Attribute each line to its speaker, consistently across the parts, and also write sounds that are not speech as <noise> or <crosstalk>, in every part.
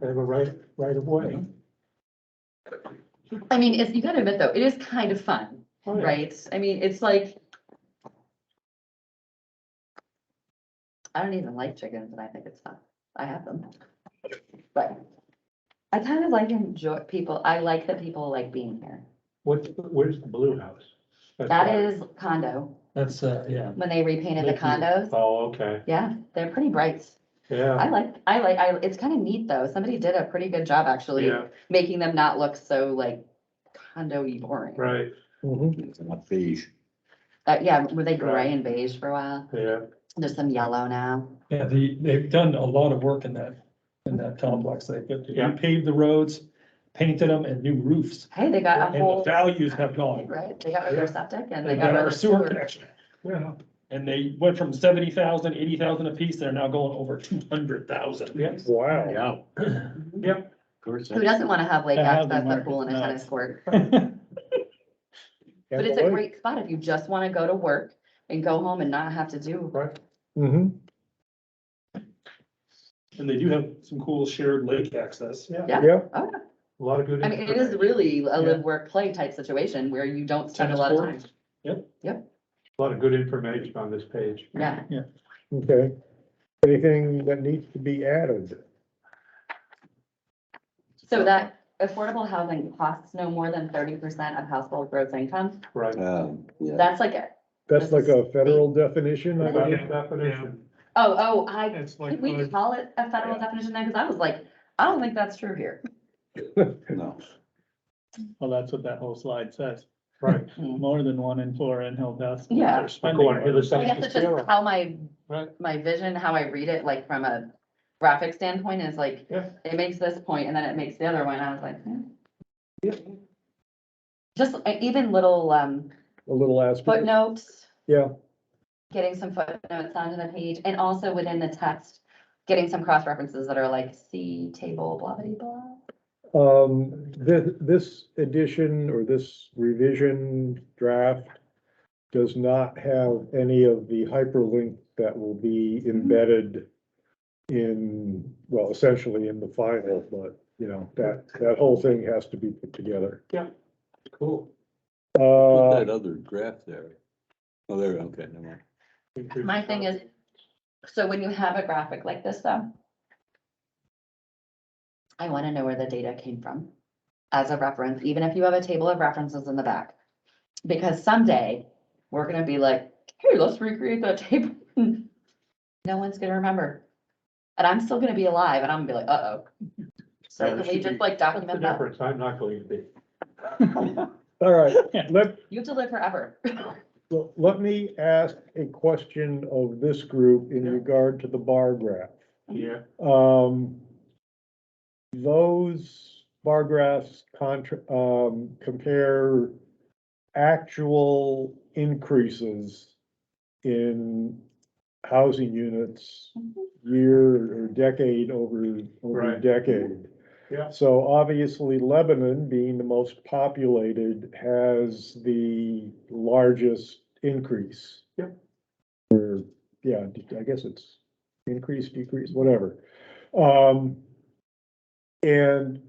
Speaker 1: They have a right, right of
Speaker 2: Mm-hmm.
Speaker 1: way.
Speaker 2: I mean, it's, you gotta admit though, it is kind of fun,
Speaker 1: Oh, yeah.
Speaker 2: right? I mean, it's like. I don't even like chickens and I think it's fun. I have them. But I kind of like enjoy people, I like that people like being here.
Speaker 1: What, where's the blue house? That's
Speaker 2: That
Speaker 1: right.
Speaker 2: is condo,
Speaker 3: That's, uh, yeah.
Speaker 2: when they repainted the
Speaker 3: Mickey.
Speaker 2: condos.
Speaker 1: Oh, okay,
Speaker 2: Yeah, they're pretty bright.
Speaker 1: yeah,
Speaker 2: I like, I like, I, it's kind of neat though. Somebody did a pretty good job actually,
Speaker 1: yeah,
Speaker 2: making them not look so like condo-y boring.
Speaker 1: right,
Speaker 4: Not beige.
Speaker 2: Uh, yeah, were they
Speaker 1: Right.
Speaker 2: gray and beige for a while?
Speaker 1: yeah,
Speaker 2: There's some yellow now.
Speaker 3: Yeah, the, they've done a lot of work in that, in that complex. They
Speaker 1: Yeah.
Speaker 3: paved the roads, painted them and new roofs.
Speaker 2: Hey, they got
Speaker 3: And
Speaker 2: a
Speaker 3: the
Speaker 2: whole,
Speaker 3: values have gone.
Speaker 2: right, they got rid of their septic and they
Speaker 3: They've got
Speaker 2: got rid
Speaker 3: our
Speaker 2: of
Speaker 3: sewer
Speaker 2: sewer.
Speaker 3: connection.
Speaker 1: yeah,
Speaker 3: And they went from seventy thousand, eighty thousand apiece, they're now going over two hundred thousand.
Speaker 1: yeah, wow.
Speaker 4: Yeah, of
Speaker 2: Mhm. Who
Speaker 4: course.
Speaker 2: doesn't want to have lake
Speaker 3: To have
Speaker 2: access,
Speaker 3: the
Speaker 2: a pool and a
Speaker 3: market, no.
Speaker 2: tennis court? But it's a great spot if you just want to go to work and go home and not have to do,
Speaker 1: Right. Mm-hmm.
Speaker 3: And they do have some cool shared lake access.
Speaker 1: Yeah.
Speaker 2: Yeah.
Speaker 1: Yeah.
Speaker 2: Oh,
Speaker 1: A lot of good.
Speaker 2: I mean, it is really a
Speaker 3: Yeah.
Speaker 2: live, work, play type situation where you don't spend a
Speaker 3: Tennis
Speaker 2: lot of time.
Speaker 3: court. Yep.
Speaker 2: Yep,
Speaker 1: A lot of good information on this page.
Speaker 2: yeah.
Speaker 5: Okay, anything that needs to be added?
Speaker 2: So that affordable housing costs no more than thirty percent of household gross income.
Speaker 1: Right.
Speaker 4: Um, yeah,
Speaker 2: That's like, a-
Speaker 5: That's like a federal definition, I
Speaker 1: About
Speaker 5: think.
Speaker 1: the definition.
Speaker 2: oh, oh, I
Speaker 1: It's
Speaker 2: Can we call it a federal definition then? Cause I was like, I don't think that's true here.
Speaker 4: no,
Speaker 6: Well, that's what that whole slide says.
Speaker 1: Right.
Speaker 2: Hmm.
Speaker 6: More than one in four in held house.
Speaker 2: Yeah.
Speaker 6: They're
Speaker 1: I'm
Speaker 6: spending
Speaker 1: going
Speaker 6: more.
Speaker 1: to the
Speaker 2: I guess
Speaker 1: second
Speaker 2: it's just how my,
Speaker 1: Right.
Speaker 2: my vision, how I read it, like from a graphic standpoint is like,
Speaker 1: Yeah.
Speaker 2: it makes this point and then it makes the other one. I was like, hmm. Just uh, even little, um,
Speaker 5: a little aspect.
Speaker 2: footnotes.
Speaker 5: Yeah.
Speaker 2: Getting some footnotes onto the page and also within the text, getting some cross references that are like, see table, blah, blah, blah.
Speaker 5: Um, this, this edition or this revision draft does not have any of the hyperlink that will be embedded in, well, essentially in the final, but, you know, that, that whole thing has to be put together.
Speaker 1: Cool.
Speaker 4: Put
Speaker 5: Uh,
Speaker 4: that other graph there. Oh, there, okay, never
Speaker 2: <laughs>
Speaker 4: mind.
Speaker 2: My thing is, so when you have a graphic like this though, I want to know where the data came from as a reference, even if you have a table of references in the back. Because someday, we're gonna be like, hey, let's recreate that table. <laughs> No one's gonna remember. And I'm still gonna be alive and I'm gonna be like, uh-oh. So
Speaker 1: Yeah, there
Speaker 2: can we
Speaker 1: should be-
Speaker 2: just like
Speaker 1: What's the
Speaker 2: document that?
Speaker 1: difference? I'm not going to be.
Speaker 5: all
Speaker 4: <laughs>
Speaker 5: right, let,
Speaker 2: You have to live forever.
Speaker 5: Well, let me ask a question of this group in
Speaker 1: Yeah.
Speaker 5: regard to the bar graph.
Speaker 1: Yeah.
Speaker 5: Um, those bar graphs contra, um, compare actual increases in housing units year or decade over, over
Speaker 1: Right.
Speaker 5: decade.
Speaker 1: Yeah.
Speaker 5: So obviously Lebanon, being the most populated, has the largest increase.
Speaker 1: Yep.
Speaker 5: Or, yeah, I guess it's increase, decrease, whatever. Um, and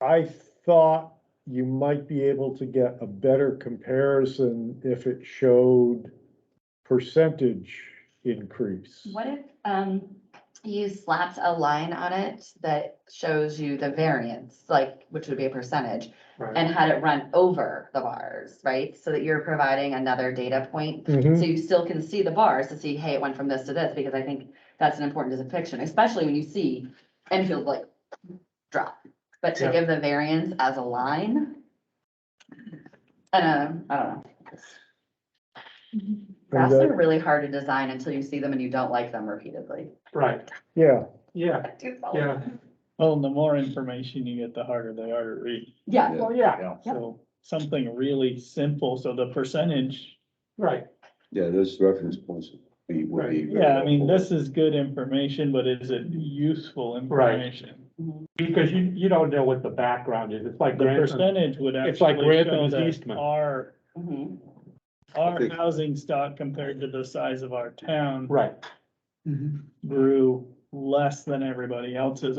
Speaker 5: I thought you might be able to get a better comparison if it showed percentage increase.
Speaker 2: What if, um, you slapped a line on it that shows you the variance, like, which would be a percentage?
Speaker 1: Right.
Speaker 2: And had it run over the bars, right? So that you're providing another data point.
Speaker 5: Mhm.
Speaker 2: So you still can see the bars to see, hey, it went from this to this, because I think that's an important depiction, especially when you see Enfield like drop. But to
Speaker 1: Yeah.
Speaker 2: give the variance as a line. And, um, I don't know. Graphs
Speaker 5: that-
Speaker 2: are really hard to design until you see them and you don't like them repeatedly.
Speaker 1: Right,
Speaker 5: Yeah,
Speaker 1: yeah, yeah.
Speaker 6: Well, and the more information you get, the harder they are to read.
Speaker 2: Yeah,
Speaker 4: Yeah.
Speaker 1: yeah,
Speaker 2: Yep.
Speaker 6: So something really simple. So the percentage,
Speaker 1: right.
Speaker 4: Yeah, those reference points would be, would be. very
Speaker 6: yeah, I mean,
Speaker 4: helpful.
Speaker 6: this is good information, but is it useful
Speaker 1: Right.
Speaker 6: information?
Speaker 1: Because you, you don't know what the background is. It's like.
Speaker 6: The
Speaker 1: Grantham.
Speaker 6: percentage would actually
Speaker 1: It's like
Speaker 6: show
Speaker 1: Grantham's
Speaker 6: that
Speaker 1: Eastman.
Speaker 6: our,
Speaker 2: Mhm.
Speaker 6: our
Speaker 4: think-
Speaker 6: housing stock compared to the size of our town
Speaker 1: Right.
Speaker 6: grew less than everybody else's